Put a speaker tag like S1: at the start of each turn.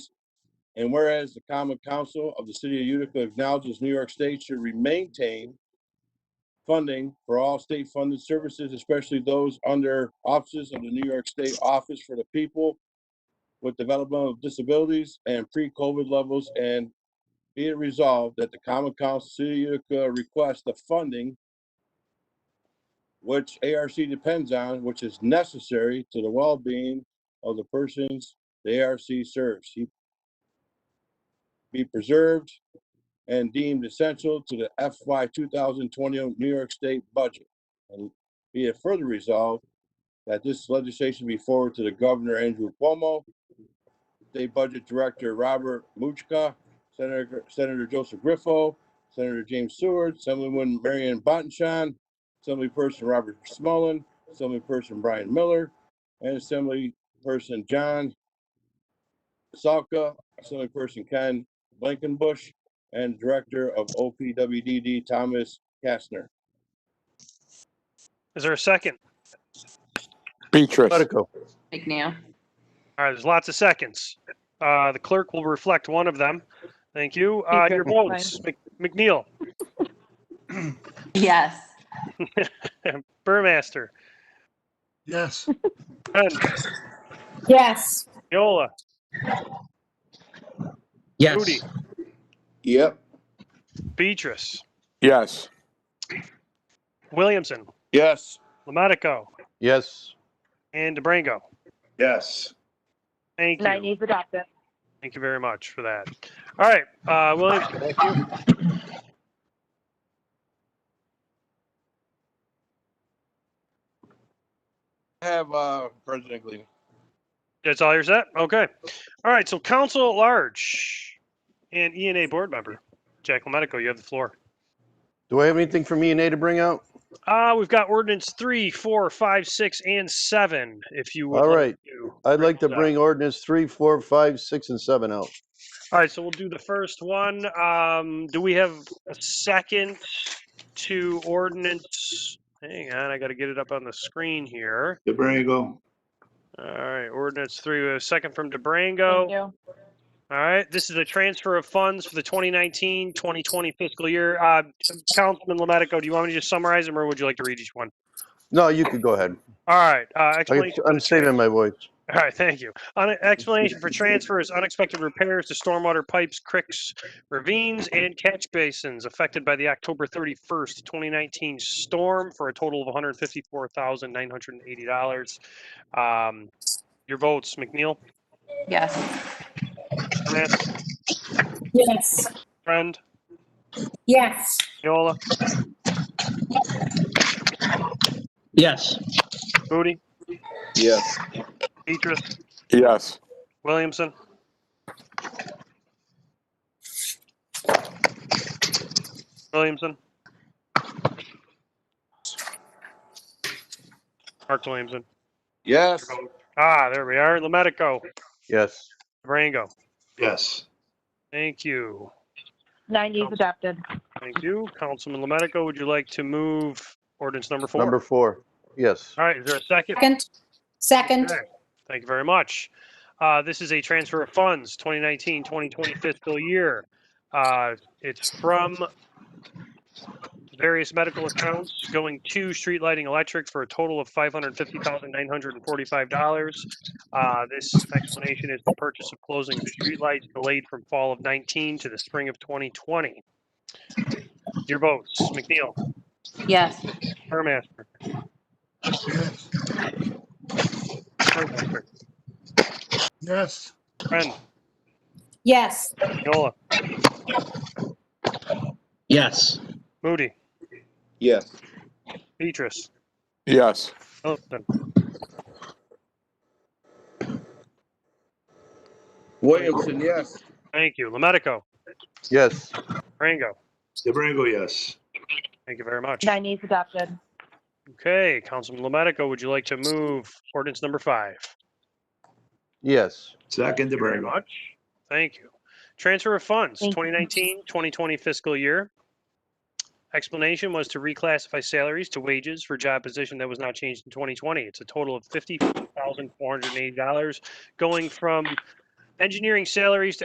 S1: And whereas the common council of the city of Utica acknowledges New York State should re- maintain funding for all state funded services, especially those under offices of the New York State Office for the People with Developmental Disabilities and pre-COVID levels. And be it resolved that the common council of the city of Utica requests the funding which ARC depends on, which is necessary to the well-being of the persons the ARC serves. He Be preserved and deemed essential to the FY 2020 New York State budget. And be it further resolved that this legislation be forwarded to the Governor Andrew Cuomo, State Budget Director Robert Muchka, Senator Senator Joseph Griffo, Senator James Seward, Assemblywoman Marion Bontchan, Assemblyperson Robert Smullen, Assemblyperson Brian Miller, and Assemblyperson John Salka, Assemblyperson Ken Blankenbush, and Director of OPWDD Thomas Kastner.
S2: Is there a second?
S3: Beatrice.
S4: Medico.
S5: McNeil.
S2: All right, there's lots of seconds. Uh, the clerk will reflect one of them. Thank you. Uh, your votes, Mc- McNeil,
S5: Yes.
S2: Burmaster,
S4: Yes.
S2: Penn,
S6: Yes.
S2: Miola, Moody,
S7: Yes.
S1: Yep.
S2: Beatrice,
S3: Yes.
S2: Williamson,
S1: Yes.
S2: Lomatico,
S4: Yes.
S2: and DeBrango.
S4: Yes.
S2: Thank you.
S6: Nine is adopted.
S2: Thank you very much for that. All right, uh, Williamson, back to you.
S1: Have, uh, President Gleason.
S2: that's all you're set? Okay. All right, so council at large and E and A board member, Jack Lomatico, you have the floor.
S4: Do I have anything for me and A to bring out?
S2: Uh, we've got ordinance three, four, five, six, and seven, if you would.
S4: All
S2: like
S4: right.
S2: to.
S4: I'd like to
S2: those out.
S4: bring ordinance three, four, five, six, and seven out.
S2: All right, so we'll do the first one. Um, do we have a second to ordinance? Hang on, I gotta get it up on the screen here.
S8: DeBrango.
S2: All right, ordinance three, we have a second from
S6: Thank
S2: DeBrango.
S6: you.
S2: All right, this is a transfer of funds for the 2019, 2020 fiscal year. Uh, Councilman Lomatico, do you want me to just summarize them or would you like to read each one?
S4: No, you could go ahead.
S2: All right, uh,
S4: I
S2: explanation.
S4: could- I'm saving my voice.
S2: All right, thank you. On explanation for transfer is unexpected repairs to stormwater pipes, creeks, ravines, and catch basins affected by the October thirty-first, twenty nineteen storm for a total of one hundred fifty-four thousand nine hundred and eighty dollars. Um, your votes, McNeil,
S5: Yes.
S2: Smith,
S6: Yes.
S2: Friend,
S6: Yes.
S2: Miola,
S7: Yes.
S2: Moody,
S1: Yes.
S2: Petrus,
S3: Yes.
S2: Williamson. Williamson. Mark Williamson.
S1: Yes.
S2: Ah, there we are. Lomatico,
S4: Yes.
S2: Brango.
S8: Yes.
S2: Thank you.
S6: Nine is adopted.
S2: Thank you. Councilman Lomatico, would you like to move ordinance number four?
S4: Number four. Yes.
S2: All right, is there a second?
S6: Second. Second.
S2: Okay, Thank you very much. Uh, This is a transfer of funds, 2019, 2020 fiscal year. Uh, It's from various medical accounts going to street lighting electric for a total of $550,945. Uh, This explanation is the purchase of closing streetlights delayed from fall of 19 to the spring of 2020. Your votes, McNeil,
S5: Yes.
S2: Burmaster, Burmaster,
S4: Yes.
S2: Friend,
S6: Yes.
S2: Yola,
S7: Yes.
S2: Moody,
S1: Yes.
S2: Petrus,
S3: Yes.
S2: Wilson.
S1: Williamson, yes.
S2: Thank you. Lomatico,
S4: Yes.
S2: Rango,
S8: DeBrango, yes.
S2: thank you very much.
S6: Nine is adopted.
S2: Okay, Councilman Lomatico, would you like to move ordinance number five?
S4: Yes.
S8: Second
S2: Thank you very
S8: DeBrango.
S2: much. Thank you. Transfer of funds,
S6: Thank you.
S2: 2019, 2020 fiscal year. Explanation was to reclassify salaries to wages for job position that was not changed in 2020. It's a total of $50,480 going from engineering salaries to